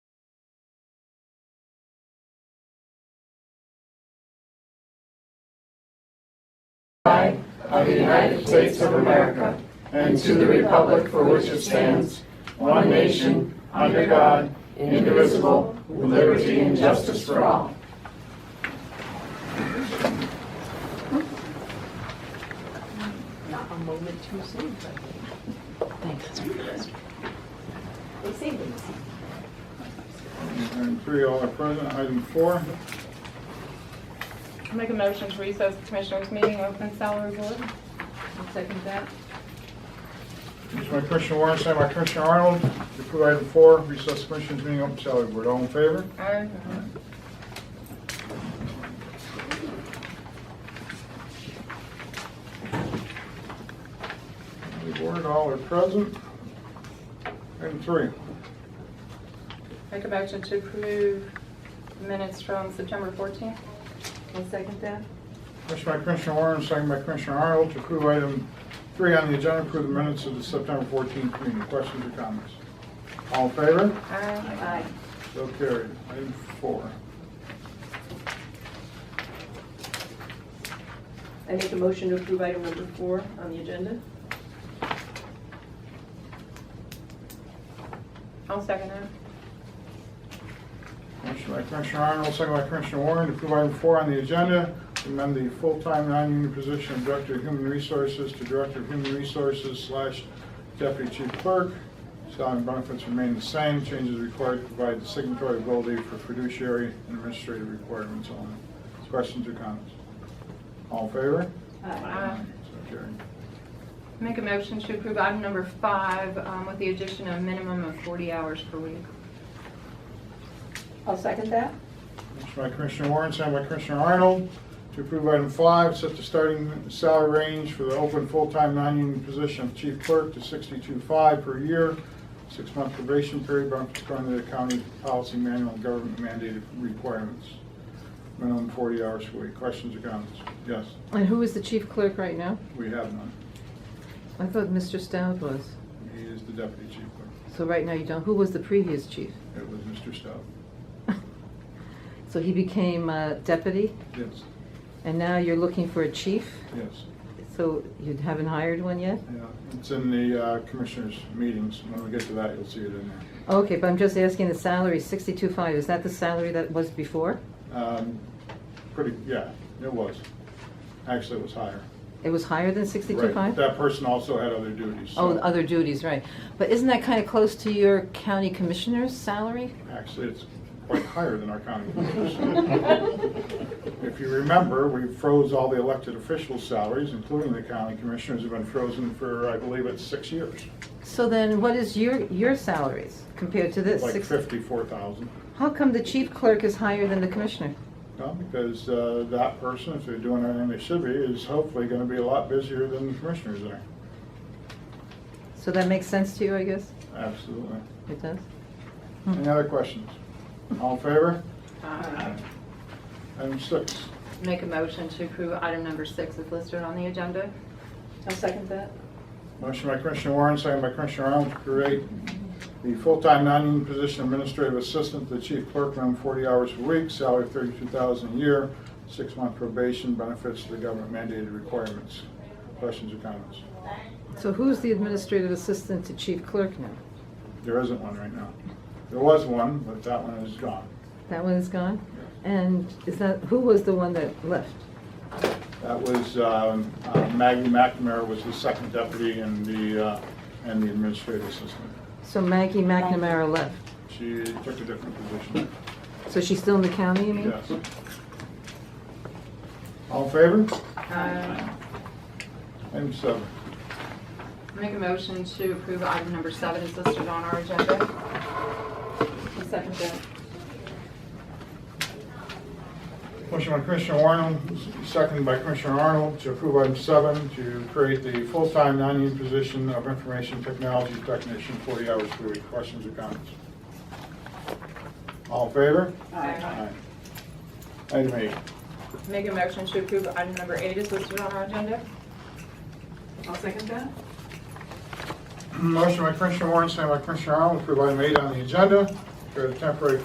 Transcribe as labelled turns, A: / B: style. A: flag of the United States of America and to the republic for which it stands, one nation, under God, indivisible, with liberty and justice for all.
B: Not a moment too soon, but. Thanks. They say things.
C: Item three, all are present. Item four,
D: Make a motion to recess the Commissioners' meeting, open salary board.
B: I'll second that.
C: motion by Commissioner Warren, second by Commissioner Arnold. To approve item four, recess commissioners meeting open salary board. All in favor?
D: Aye.
C: The board, all are present. Item three,
D: Make a motion to approve minutes from September 14th.
B: I'll second that.
C: motion by Commissioner Warren, second by Commissioner Arnold. To approve item three on the agenda, approve the minutes of the September 14th meeting. Questions or comments? All in favor?
D: Aye.
B: Aye.
C: So carried. Item four.
B: I make a motion to approve item number four on the agenda.
D: I'll second that.
C: Motion by Commissioner Arnold, second by Commissioner Warren, to approve item four on the agenda, to amend the full-time non-union position of Director of Human Resources to Director of Human Resources slash Deputy Chief Clerk. Salary and benefits remain the same, changes required to provide the signatory ability for fiduciary and administrative requirements only. Questions or comments? All in favor?
B: Uh,
D: Aye.
C: So carried.
D: Make a motion to approve item number five um, with the addition of minimum of 40 hours per week.
B: I'll second that.
C: Motion by Commissioner Warren, signed by Commissioner Arnold, to approve item five, set the starting salary range for the open full-time non-union position of chief clerk to sixty-two-five per year, six-month probation period, benefits according to the county policy manual and government mandated requirements. Minimum forty hours a week. Questions or comments? Yes,
E: And who is the chief clerk right now?
C: we have none.
E: I thought Mr. Stout was.
C: He is the deputy chief clerk.
E: So right now you don't, who was the previous chief?
C: It was Mr. Stout.
E: So he became uh, deputy,
C: Yes,
E: and now you're looking for a chief?
C: yes.
E: So you haven't hired one yet?
C: Yeah, it's in the uh, commissioners' meetings. When we get to that, you'll see it in there.
E: Okay, but I'm just asking the salary, sixty-two five, is that the salary that was before?
C: Um, Pretty, yeah, it was. Actually, it was higher.
E: It was higher than sixty-two
C: Right.
E: five?
C: That person also had other duties. so-
E: Oh, other duties, right. But isn't that kind of close to your county commissioner's salary?
C: Actually, it's quite higher than our county commissioners. If you remember, we froze all the elected officials' salaries, including the county commissioners, have been frozen for, I believe, it's six years.
E: So then what is your, your salaries compared to this?
C: Like
E: Six-
C: fifty-four thousand.
E: How come the chief clerk is higher than the commissioner?
C: No, because uh, that person, if they're doing everything they should be, is hopefully gonna be a lot busier than the commissioners are.
E: So that makes sense to you, I guess?
C: Absolutely.
E: It does? Hmm.
C: Any other questions? All in favor?
D: Aye.
C: Item six.
D: Um, Make a motion to approve item number six is listed on the agenda.
B: I'll second that.
C: Motion by Commissioner Warren, second by Commissioner Arnold, to create the full-time non-union position administrative assistant to the chief clerk, minimum 40 hours a week, salary 32000 a year, six-month probation, benefits to the government mandated requirements. Questions or comments?
E: So who's the administrative assistant to chief clerk now?
C: There isn't one right now. There was one, but that one is gone.
E: That one is gone? And is that, who was the one that left?
C: That was, um, uh, Maggie McNamara was the second deputy and the, uh, and the administrative assistant.
E: So Maggie McNamara left.
C: She took a different position.
E: So she's still in the county, you mean?
C: Yes. All in favor?
D: Aye.
C: Item seven.
D: Make a motion to approve item number seven is listed on our agenda.
B: I'll second that.
C: Motion by Commissioner Warren, seconded by Commissioner Arnold, to approve item seven, to create the full-time non-union position of information technology technician, 40 hours per week. Questions or comments? All in favor?
D: Aye.
C: Item eight.
D: Make a motion to approve item number eight is listed on our agenda.
B: I'll second that.
C: Motion by Commissioner Warren, seconded by Commissioner Arnold, to approve item eight on the agenda, create a temporary